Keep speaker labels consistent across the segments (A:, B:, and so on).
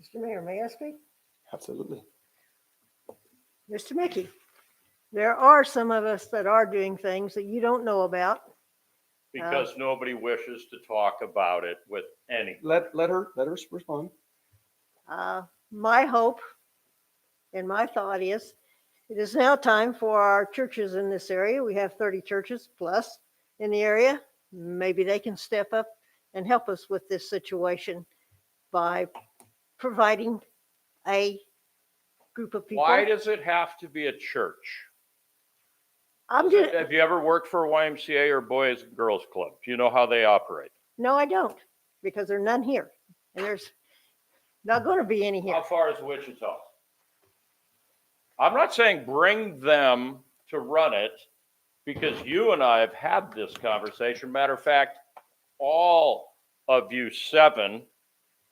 A: Mr. Mayor, may I speak?
B: Absolutely.
A: Mr. Mickey, there are some of us that are doing things that you don't know about.
C: because nobody wishes to talk about it with any.
B: Let, let her, let her respond.
A: Uh, My hope and my thought is, it is now time for our churches in this area. We have 30 churches plus in the area. Maybe they can step up and help us with this situation by providing a group of people.
C: Why does it have to be a church?
A: I'm just,
C: Have you ever worked for a YMCA or Boys and Girls Club? Do you know how they operate?
A: no, I don't, because there are none here. And there's not going to be any here.
C: How far is Wichita? I'm not saying bring them to run it because you and I have had this conversation. Matter of fact, all of you seven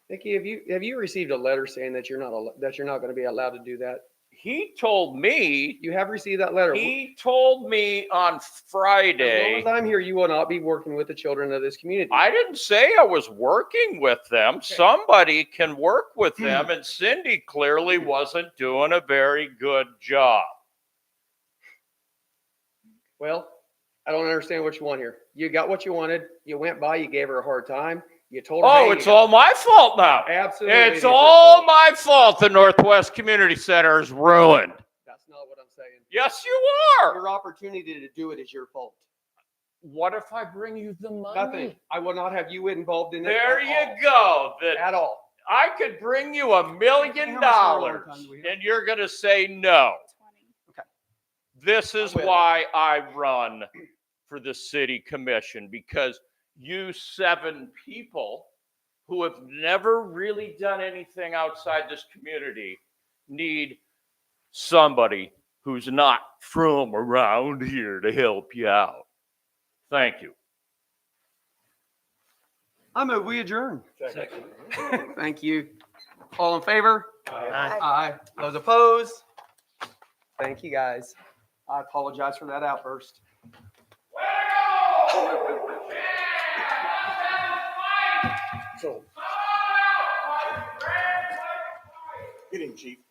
B: Nikki, have you, have you received a letter saying that you're not, al- that you're not going to be allowed to do that?
C: He told me,
B: You have received that letter.
C: he told me on
B: As
C: Friday.
B: long as I'm here, you will not be working with the children of this community.
C: I didn't say I was working with them. Somebody can work with them, and Cindy clearly wasn't doing a very good job.
B: Well, I don't understand what you want here. You got what you wanted. You went by, you gave her a hard time. You told her.
C: Oh,
B: hey,
C: it's all my fault now.
B: Absolutely. it is
C: It's
B: your
C: all
B: fault.
C: my fault the Northwest Community Center is ruined.
B: That's not what I'm saying.
C: Yes, you are.
B: Your opportunity to do it is your fault.
C: What if I bring you the money?
B: Nothing. I will not have you involved in it.
C: There
B: at
C: you
B: all.
C: go. That
B: At all.
C: I could bring you a
B: How
C: million
B: much more
C: dollars
B: overtime do we have?
C: and you're going to say no. This is
B: I will.
C: why I run for the city commission because you seven people who have never really done anything outside this community need somebody who's not from around here to help you out. Thank you.
B: I move we adjourn. Thank you. All in favor?
A: Aye.
B: Aye. Those opposed? Thank you, guys. I apologize for that outburst.
D: So. Get him, chief.